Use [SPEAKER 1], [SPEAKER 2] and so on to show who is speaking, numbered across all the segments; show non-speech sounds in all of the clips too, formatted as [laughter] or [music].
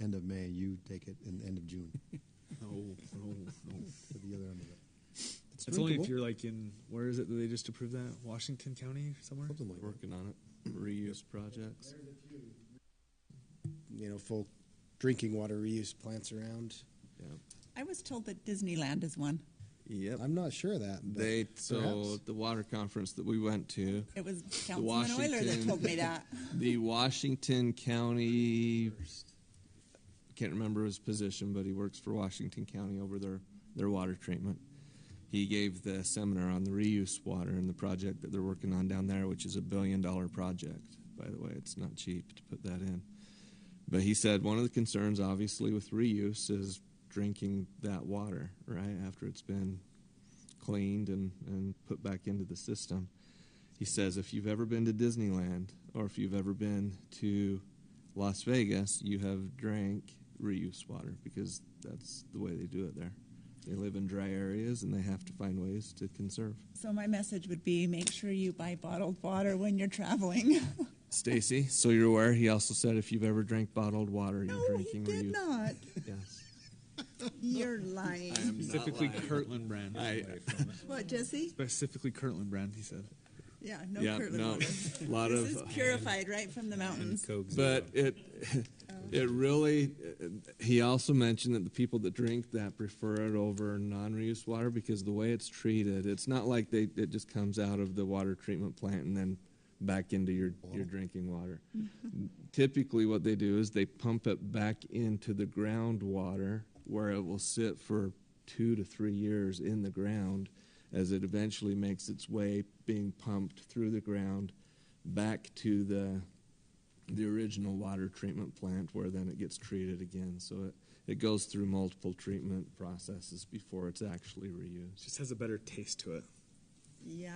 [SPEAKER 1] end of May, you take it in the end of June
[SPEAKER 2] No, no, no.
[SPEAKER 1] for the other end of it.
[SPEAKER 3] It's only if
[SPEAKER 1] drinkable.
[SPEAKER 3] you're like in where is it that they just approved that Washington County somewhere.
[SPEAKER 1] Something like that.
[SPEAKER 2] Working on it. Reuse projects.
[SPEAKER 1] You know, folk drinking water reuse plants around.
[SPEAKER 2] Yeah.
[SPEAKER 4] I was told that Disneyland is one.
[SPEAKER 2] Yep.
[SPEAKER 1] I'm not sure of that. but
[SPEAKER 2] They so
[SPEAKER 1] perhaps.
[SPEAKER 2] the water conference that we went to,
[SPEAKER 4] It was
[SPEAKER 2] the
[SPEAKER 4] Councilman
[SPEAKER 2] Washington,
[SPEAKER 4] Euler that told me that.
[SPEAKER 2] the Washington County. Can't remember his position, but he works for Washington County over their their water treatment. He gave the seminar on the reuse water and the project that they're working on down there, which is a billion dollar project. By the way, it's not cheap to put that in. But he said one of the concerns, obviously, with reuse is drinking that water, right, after it's been cleaned and, and put back into the system. He says if you've ever been to Disneyland or if you've ever been to Las Vegas, you have drank reuse water because that's the way they do it there. They live in dry areas and they have to find ways to conserve.
[SPEAKER 4] [laughs] So my message would be make sure you buy bottled water when you're traveling.
[SPEAKER 2] Stacy, so you're aware, he also said if you've ever drank bottled water, you're
[SPEAKER 4] [laughs] no, he
[SPEAKER 2] drinking
[SPEAKER 4] did
[SPEAKER 2] reuse.
[SPEAKER 4] not.
[SPEAKER 2] Yes.
[SPEAKER 4] You're
[SPEAKER 2] [laughs]
[SPEAKER 4] lying.
[SPEAKER 3] Specifically Kirtland brand.
[SPEAKER 4] What,
[SPEAKER 3] [laughs]
[SPEAKER 4] Jesse?
[SPEAKER 3] Specifically Kirtland brand. He said.
[SPEAKER 4] Yeah, no
[SPEAKER 2] yeah,
[SPEAKER 4] Kirtland
[SPEAKER 2] no.
[SPEAKER 4] water.
[SPEAKER 2] A [laughs] lot
[SPEAKER 4] This
[SPEAKER 2] of
[SPEAKER 4] is
[SPEAKER 2] [laughs]
[SPEAKER 4] purified right from the
[SPEAKER 3] Mm-hmm.
[SPEAKER 4] mountains.
[SPEAKER 2] but it [laughs] it really he also mentioned that the people that drink that prefer it over non-reuse water because the way it's treated it's not like they it just comes out of the water treatment plant and then back into your your drinking water typically what they do is they pump it back into the groundwater where it will sit for two to three years in the ground as it eventually makes its way being pumped through the ground back to the the original water treatment plant where then it gets treated again so it, it goes through multiple treatment processes before it's actually reused
[SPEAKER 3] Just has a better taste to it.
[SPEAKER 4] Yeah.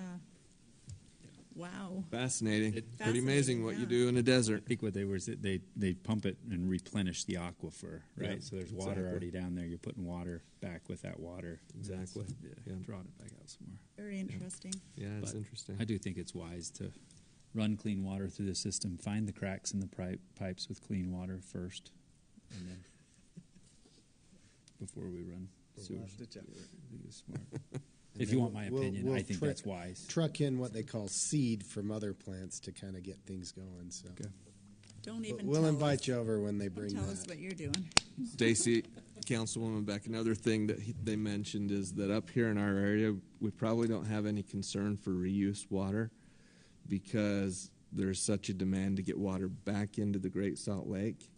[SPEAKER 4] Wow.
[SPEAKER 2] fascinating pretty
[SPEAKER 4] Fascinating,
[SPEAKER 2] amazing what you
[SPEAKER 4] yeah.
[SPEAKER 2] do in a desert
[SPEAKER 5] I think what they were is that they they pump it and replenish the aquifer, right?
[SPEAKER 2] Yeah,
[SPEAKER 5] so there's water
[SPEAKER 2] exactly.
[SPEAKER 5] already down there. You're putting water back with that water,
[SPEAKER 2] exactly yeah, yeah.
[SPEAKER 5] and drawing it back out somewhere.
[SPEAKER 4] Very interesting.
[SPEAKER 2] yeah it's
[SPEAKER 5] But
[SPEAKER 2] interesting
[SPEAKER 5] I do think it's wise to run clean water through the system, find the cracks in the pri- pipes with clean water first, and then before we run sewer. I think it's
[SPEAKER 2] [laughs]
[SPEAKER 5] smart.
[SPEAKER 1] And
[SPEAKER 5] if
[SPEAKER 1] then
[SPEAKER 5] you want my
[SPEAKER 1] we'll-
[SPEAKER 5] opinion,
[SPEAKER 1] we'll
[SPEAKER 5] I think
[SPEAKER 1] tra-
[SPEAKER 5] that's wise.
[SPEAKER 1] Truck in what they call seed from other plants to kind of get things going. So
[SPEAKER 2] Okay.
[SPEAKER 4] Don't
[SPEAKER 1] But
[SPEAKER 4] even
[SPEAKER 1] we'll
[SPEAKER 4] tell
[SPEAKER 1] invite
[SPEAKER 4] us.
[SPEAKER 1] you over when they bring
[SPEAKER 4] Don't tell
[SPEAKER 1] that.
[SPEAKER 4] us what you're doing.
[SPEAKER 2] Stacy, Councilwoman Beck, another thing that he, they mentioned is that up here in our area, we probably don't have any concern for reuse water because there's such a demand to get water back into the Great Salt Lake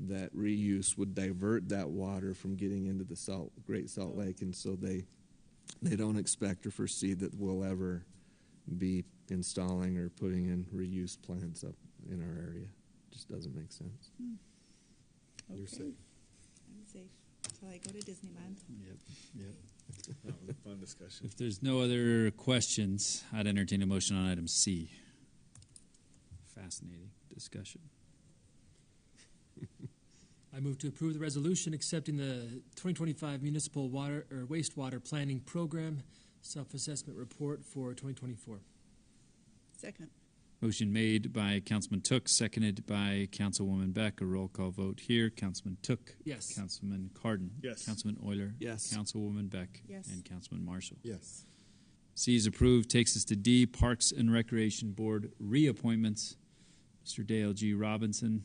[SPEAKER 2] that reuse would divert that water from getting into the salt Great Salt Lake, and so they they don't expect or foresee that we'll ever be installing or putting in reuse plants up in our area. Just doesn't make sense.
[SPEAKER 4] Okay.
[SPEAKER 1] You're safe.
[SPEAKER 4] I'm safe until I go to Disneyland.
[SPEAKER 5] Yep, yep.
[SPEAKER 3] That was a fun discussion.
[SPEAKER 5] If there's no other questions, I'd entertain a motion on item C. Fascinating discussion.
[SPEAKER 6] I move to approve the resolution accepting the 2025 municipal water or wastewater planning program self-assessment report for 2024.
[SPEAKER 4] Second.
[SPEAKER 5] Motion made by Councilman Took, seconded by Councilwoman Beck. A roll call vote here. Councilman Took.
[SPEAKER 6] Yes.
[SPEAKER 5] Councilman Cardon.
[SPEAKER 3] Yes.
[SPEAKER 5] Councilman Euler.
[SPEAKER 2] Yes.
[SPEAKER 5] Councilwoman Beck.
[SPEAKER 4] Yes.
[SPEAKER 5] And Councilman Marshall.
[SPEAKER 1] Yes.
[SPEAKER 5] C is approved. Takes us to D, Parks and Recreation Board reappointments. Mr. Dale G. Robinson.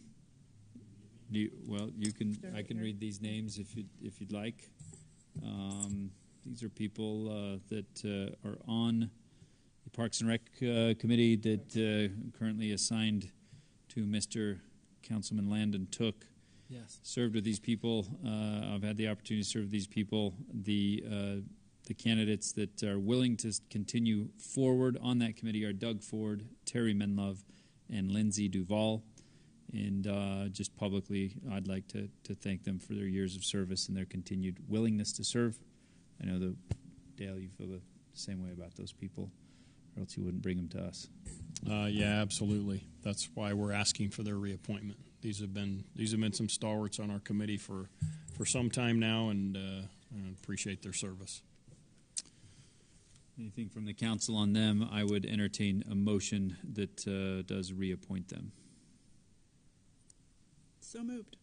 [SPEAKER 5] Do you, well, you can.
[SPEAKER 4] They're
[SPEAKER 5] I
[SPEAKER 4] right
[SPEAKER 5] can
[SPEAKER 4] here.
[SPEAKER 5] read these names if you if you'd like. Um, these are people uh, that uh, are on the Parks and Rec uh, committee that uh, currently assigned to Mr. Councilman Landon Took
[SPEAKER 6] Yes.
[SPEAKER 5] served with these people. Uh, I've had the opportunity to serve with these people. The uh, the candidates that are willing to s- continue forward on that committee are Doug Ford, Terry Menlove, and Lindsay Duval. And uh, just publicly, I'd like to, to thank them for their years of service and their continued willingness to serve. I know that Dale, you feel the same way about those people, or else you wouldn't bring them to us.
[SPEAKER 7] Uh, yeah, absolutely. That's why we're asking for their reappointment. These have been these have been some stalwarts on our committee for for some time now, and uh, I appreciate their service.
[SPEAKER 5] Anything from the council on them, I would entertain a motion that uh, does reappoint them.
[SPEAKER 4] So moved.